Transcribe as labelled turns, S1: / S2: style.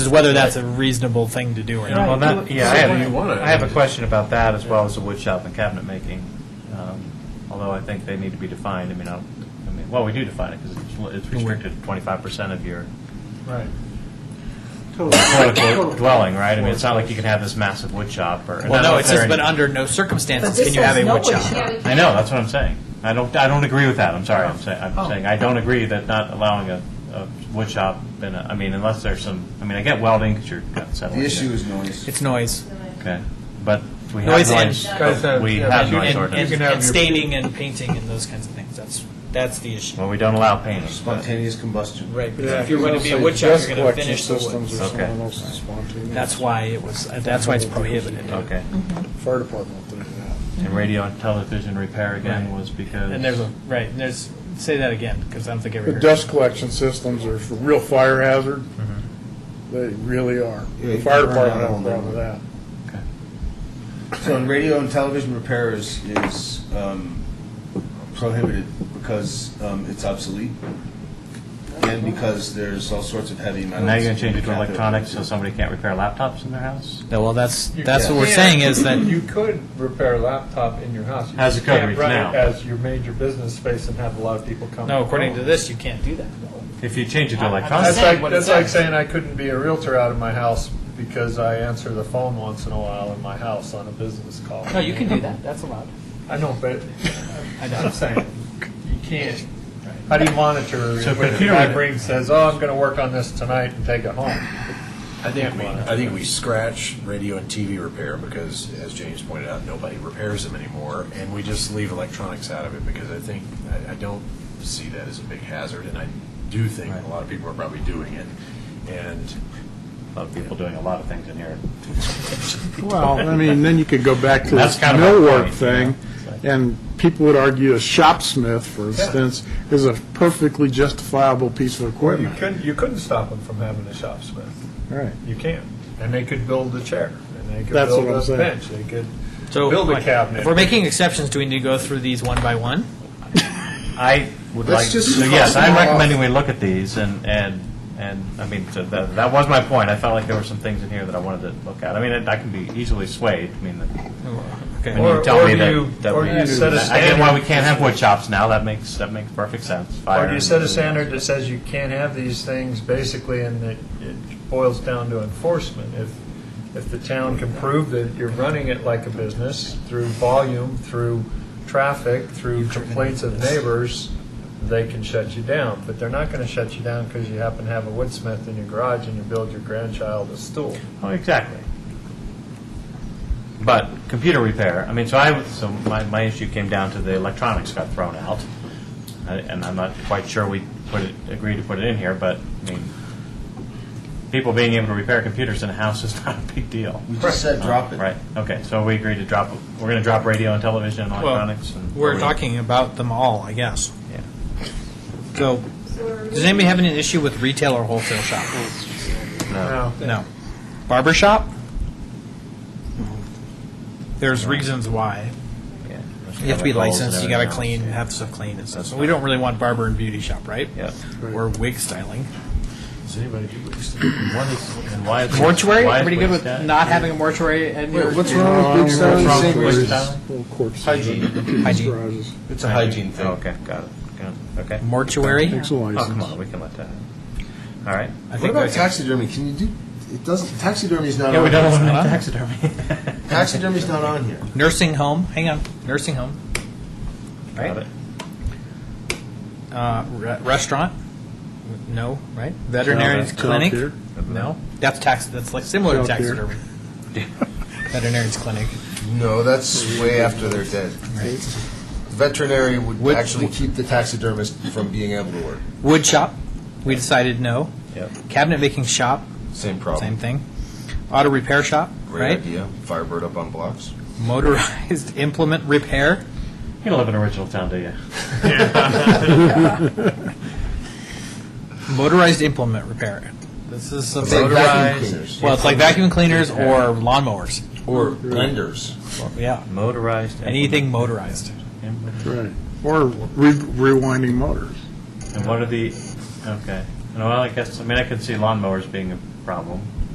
S1: is whether that's a reasonable thing to do or
S2: Well,
S1: not.
S2: that, yeah, I
S3: do you
S2: have,
S3: wanna-
S2: I have a question about that as well as the wood shop and cabinet making. Um, Although I think they need to be defined, I mean, I don't- I mean, well, we do define it because it's restricted to twenty-five percent of your
S4: Right.
S2: quote-unquote dwelling, right? I mean, it's not like you can have this massive wood shop or. and I
S1: Well,
S2: don't know
S1: no,
S2: if
S1: it
S2: there
S1: says,
S2: are
S1: but
S2: any-
S1: under no circumstances
S4: But
S1: can
S4: this
S1: you have a
S4: says no
S1: wood
S4: wood
S1: shop.
S4: shop.
S2: I know, that's what I'm saying. I don't, I don't agree with that, I'm sorry, I'm saying,
S4: Oh.
S2: I'm saying, I don't agree that not allowing a, a wood shop in a, I mean, unless there's some, I mean, I get welding because you're gut settling.
S5: Oh,
S6: The
S2: it.
S6: issue is noise.
S1: It's noise.
S2: Okay, but we have
S1: Noise uh, and-
S2: noise,
S4: Guys have-
S2: we
S4: yeah,
S2: have
S4: you-
S2: noise
S1: And,
S4: You
S2: ordinance.
S1: and,
S4: can have
S1: and
S4: your-
S1: staining and painting and those kinds of things. That's, that's the issue.
S2: Well, we don't allow painting.
S6: Mm-hmm.
S2: but-
S6: Spontaneous combustion.
S1: Right, because
S3: Yeah,
S1: if you're going to
S3: you
S1: be a
S3: also
S1: wood shop,
S3: dust
S1: you're going to
S3: collection
S1: finish the
S3: systems
S1: wood.
S3: or
S2: Okay.
S3: something else is spontaneous.
S1: That's why it was, that's why it's prohibited.
S2: Okay.
S3: Fire department will do that.
S2: And radio and television repair again
S1: Right.
S2: was because.
S1: And there's a, right, and there's, say that again, because I don't think I ever
S3: The
S1: heard.
S3: dust collection systems are a real fire hazard.
S2: Mm-hmm.
S3: They really are.
S6: Yeah,
S3: The
S6: you
S3: fire
S6: can burn
S3: department
S6: out
S3: has a
S6: on
S3: problem with that.
S2: Okay.
S6: So in radio and television repair is, is um, prohibited because um, it's obsolete and because there's all sorts of heavy metals.
S2: Now you're going to change it
S6: in
S2: to
S6: cathode.
S2: electronics so somebody can't repair laptops in their house?
S1: Yeah, Well, that's, that's
S6: Yeah.
S1: what we're saying is that
S4: You could repair a laptop in your house. You
S2: How's the
S4: just
S2: code
S4: can't
S2: read
S4: run it
S2: now?
S4: As your major business space and have a lot of people come.
S1: No,
S4: and
S1: according
S4: go.
S1: to this, you can't do that.
S2: If you change it to
S1: I- I-
S2: electronics,
S4: That's
S1: saying
S4: like,
S1: what it
S4: that's like
S1: says.
S4: saying I couldn't be a realtor out of my house because I answer the phone once in a while in my house on a business call.
S1: No, you can do that. That's allowed.
S4: I know, but
S1: I know.
S4: I'm saying, you can't. How do you monitor
S2: So
S4: when the
S2: computer-
S4: guy brings, says, oh, I'm going to work on this tonight and take it home?
S5: I think we, I think we scratch radio and TV repair because, as James pointed out, nobody repairs them anymore, and we just leave electronics out of it because I think, I, I don't see that as a big hazard, and I do think a lot of people are probably doing it, and
S2: a lot of people doing a lot of things in here.
S7: Well, I mean, then you could go back to
S2: That's
S7: this
S2: kind of my
S7: millwork
S2: point,
S7: thing,
S2: yeah.
S7: and people would argue a shopsmith, for instance, is a perfectly justifiable piece of
S4: You
S7: equipment.
S4: couldn't, you couldn't stop them from having a shop smith.
S7: Right.
S4: You can. And they could build a chair, and they could
S7: That's
S4: build
S7: what I'm
S4: a
S7: saying.
S4: bench, they could
S1: So
S4: build a
S1: like,
S4: cabinet.
S1: If we're making exceptions, do we need to go through these one by one?
S2: I would
S6: Let's
S2: like, so
S6: just cross
S2: yes,
S6: them
S2: I'm
S6: all
S2: recommending we look at these and, and, and, I mean, so that, that was my point. I felt like there were some things in here that I wanted to look at. I mean, I I can be easily swayed, I mean,
S1: Okay.
S2: when you
S4: Or-
S2: tell
S4: or
S2: me
S4: do
S2: that.
S4: you-
S2: that
S4: or
S2: we-
S4: do you set a
S2: I get why we
S4: standard?
S2: can't have wood shops now, that makes, that makes perfect sense.
S4: Or do
S2: Fire-
S4: you set a standard that says you can't have these things basically and that it boils down to enforcement? If, if the town can prove that you're running it like a business through volume, through traffic, through complaints of neighbors, they can shut you down. But they're not going to shut you down because you happen to have a woodsmith in your garage and you build your grandchild a stool.
S2: Oh, exactly. But computer repair, I mean, so I, so my, my issue came down to the electronics got thrown out. I- And I'm not quite sure we put it, agreed to put it in here, but, I mean, people being able to repair computers in a house is not a big deal.
S6: We just said drop it.
S2: Right, okay, so we agreed to drop, we're gonna drop radio and television and electronics and.
S1: We're talking about them all, I guess.
S2: Yeah.
S1: So, does anybody have any issue with retail or wholesale shop?
S4: Now,
S1: No. Barber shop? There's reasons why.
S2: Yeah.
S1: You have to be
S2: Chemicals and
S1: licensed, you gotta
S2: everything else.
S1: clean, have stuff clean and stuff. So we don't really want barber and beauty shop, right?
S2: Yeah.
S1: Or wig styling.
S5: does anybody do this?
S2: What is, and why is.
S1: Mortuary,
S2: why is
S1: everybody good with
S2: waste that?
S1: not having a mortuary and your
S6: What's wrong with
S2: What's
S6: big
S2: wrong with
S6: salaries?
S2: waste that?
S7: Little corpses.
S6: Hygiene.
S1: hygiene?
S7: Garages.
S6: It's a hygiene thing.
S2: Oh, Okay, got it, got it, okay.
S1: Mortuary?
S7: Takes a
S2: Oh, come
S7: license.
S2: on, we can let that happen. All right.
S6: What about taxidermy? Can you do, it doesn't, taxidermy's not
S2: Yeah, we don't
S6: on here.
S2: eliminate
S1: Huh?
S2: taxidermy.
S6: Taxidermy's not on here.
S1: Nursing home, hang on, nursing home,
S2: Got it.
S1: uh, re- restaurant? No, right? Veterinarian's
S7: Childcare.
S1: clinic?
S7: Childcare.
S1: No, that's tax, that's like similar to
S7: Childcare.
S1: taxidermy. Veterinarian's clinic.
S5: No, that's way after they're dead. Veterinary would actually keep the taxidermist from being able to work,
S1: Wood shop, we decided no.
S2: Yep.
S1: Cabinet making shop,
S5: same
S1: same thing. Auto repair shop, right?
S5: idea, Firebird up on blocks.
S1: Motorized implement repair.
S2: You don't live in original town, do you?
S1: Motorized implement repair. This is
S6: It's
S1: something.
S6: like vacuum cleaners
S1: Well, it's like vacuum cleaners or lawnmowers.
S6: or blenders.
S1: Yeah,
S2: Motorized.
S1: anything motorized.
S2: implement-
S7: Right. Or re- rewinding motors.
S2: And what are the, okay. No, well, I guess, I mean, I could see lawnmowers being a problem.